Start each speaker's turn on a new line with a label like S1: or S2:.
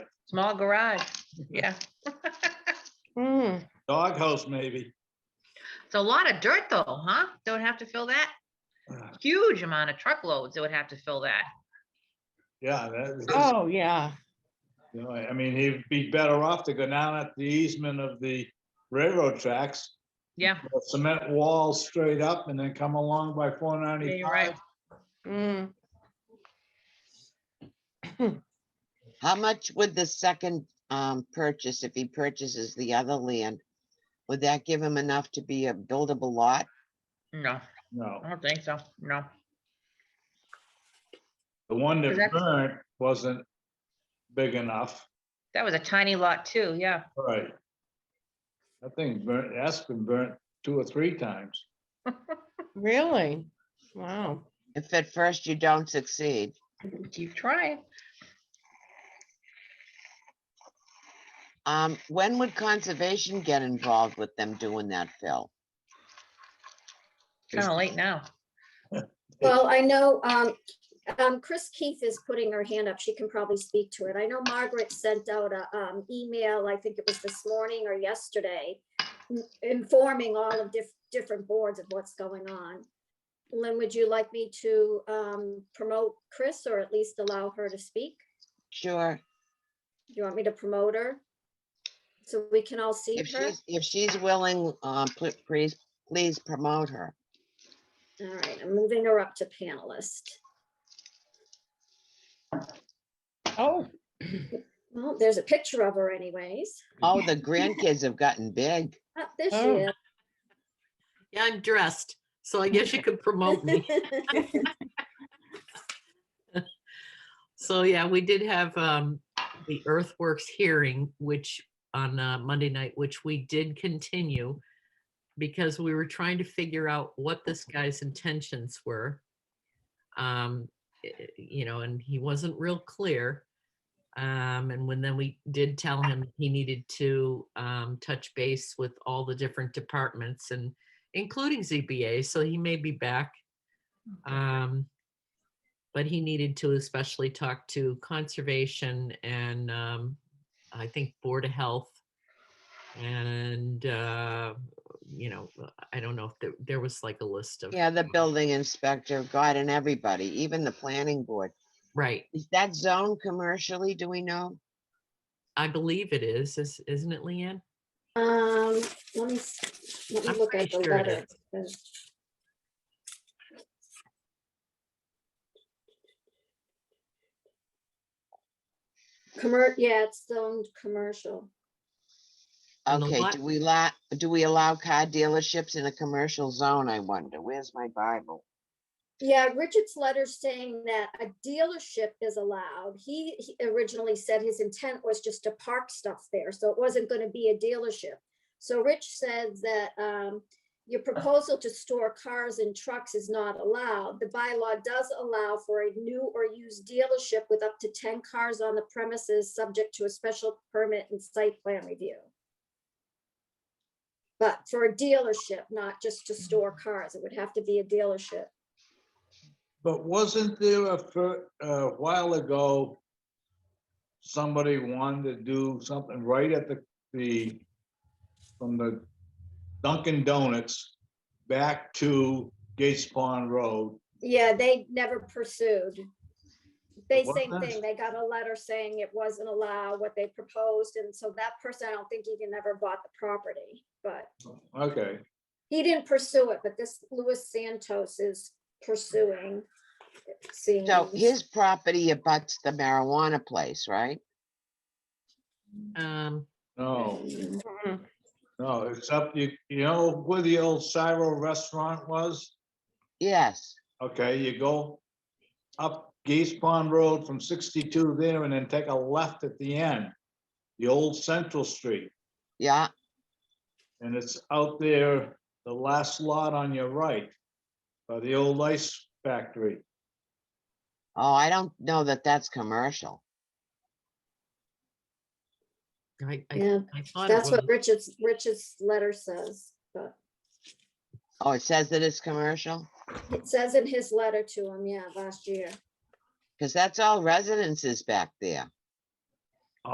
S1: small garage, yeah.
S2: Mm,
S3: Doghouse, maybe.
S1: It's a lot of dirt though, huh? Don't have to fill that?
S3: Ah.
S1: Huge amount of truckloads that would have to fill that.
S3: Yeah, that,
S2: Oh, yeah.
S3: you know, I mean, he'd be better off to go down at the easement of the railroad tracks,
S1: Yeah,
S3: a cement wall straight up and then come along by four
S1: yeah, you're right.
S3: ninety-five.
S2: Mm.
S4: How much would the second um purchase, if he purchases the other land? Would that give him enough to be a buildable lot?
S1: No,
S3: No,
S1: I don't think so, no.
S3: the one
S1: Is
S3: that
S1: that-
S3: burnt wasn't big enough,
S1: That was a tiny lot too, yeah.
S3: right? That thing burnt, that's been burnt two or three times.
S2: Really? Wow.
S4: If at first you don't succeed,
S1: Keep trying.
S4: um, when would conservation get involved with them doing that, Phil?
S1: Kind of late now.
S5: Well, I know, um, um, Chris Keith is putting her hand up. She can probably speak to it. I know Margaret sent out a, um, email, I think it was this morning or yesterday, n- informing all of diff- different boards of what's going on. Lynn, would you like me to, um, promote Chris or at least allow her to speak?
S4: Sure,
S5: Do you want me to promote her? So we can all see
S4: if
S5: her?
S4: she's, if she's willing, um, pl- please, please promote her.
S5: All right, I'm moving her up to panelist.
S2: Oh,
S5: Well, there's a picture of her anyways.
S4: Oh, the grandkids have gotten big.
S5: Ah, There
S2: Oh.
S5: she is.
S6: Yeah, I'm dressed, so I guess you could promote me. So yeah, we did have um the earthworks hearing, which on uh, Monday night, which we did continue because we were trying to figure out what this guy's intentions were. Um, i- i- you know, and he wasn't real clear. Um, and when then we did tell him he needed to um touch base with all the different departments and including ZBA, so he may be back. Um, but he needed to especially talk to conservation and um, I think Board of Health. And, uh, you know, I don't know if there, there was like a list of.
S4: Yeah, the building inspector, God, and everybody, even the planning board.
S6: Right,
S4: Is that zone commercially, do we know?
S6: I believe it is, is- isn't it, Leanne?
S5: Um, let me, s- let me
S6: I'm
S5: look
S6: pretty
S5: at the
S6: sure it
S5: letter.
S6: is.
S5: because- Commer, yeah, it's zoned commercial.
S6: And the
S4: Okay,
S6: lot-
S4: do we la, do we allow car dealerships in a commercial zone, I wonder? Where's my Bible?
S5: Yeah, Richard's letter saying that a dealership is allowed. He he originally said his intent was just to park stuff there, so it wasn't gonna be a dealership. So Rich says that um your proposal to store cars and trucks is not allowed. The bylaw does allow for a new or used dealership with up to ten cars on the premises, subject to a special permit and site plan review. But for a dealership, not just to store cars, it would have to be a dealership.
S3: But wasn't there a, fir- a while ago, somebody wanted to do something right at the, the, from the Dunkin' Donuts back to Gates Pond Road?
S5: Yeah, they never pursued. They
S3: It
S5: same
S3: wasn't?
S5: thing, they got a letter saying it wasn't allowed what they proposed, and so that person, I don't think even ever bought the property, but
S3: Okay,
S5: he didn't pursue it, but this Louis Santos is pursuing. it seems.
S4: So his property abuts the marijuana place, right?
S5: Mm.
S6: Um,
S3: no,
S2: mm,
S3: no, except you, you know where the old Cyro Restaurant was?
S4: Yes,
S3: Okay, you go up Gates Pond Road from sixty-two there and then take a left at the end, the old Central Street.
S4: yeah,
S3: And it's out there, the last lot on your right, by the old ice factory.
S4: oh, I don't know that that's commercial.
S6: I, I,
S5: Yeah,
S6: I thought it
S5: that's
S6: was,
S5: what Richard's, Richard's letter says, but
S4: Oh, it says that it's commercial?
S5: it says in his letter to him, yeah, last year.
S4: Because that's all residences back there.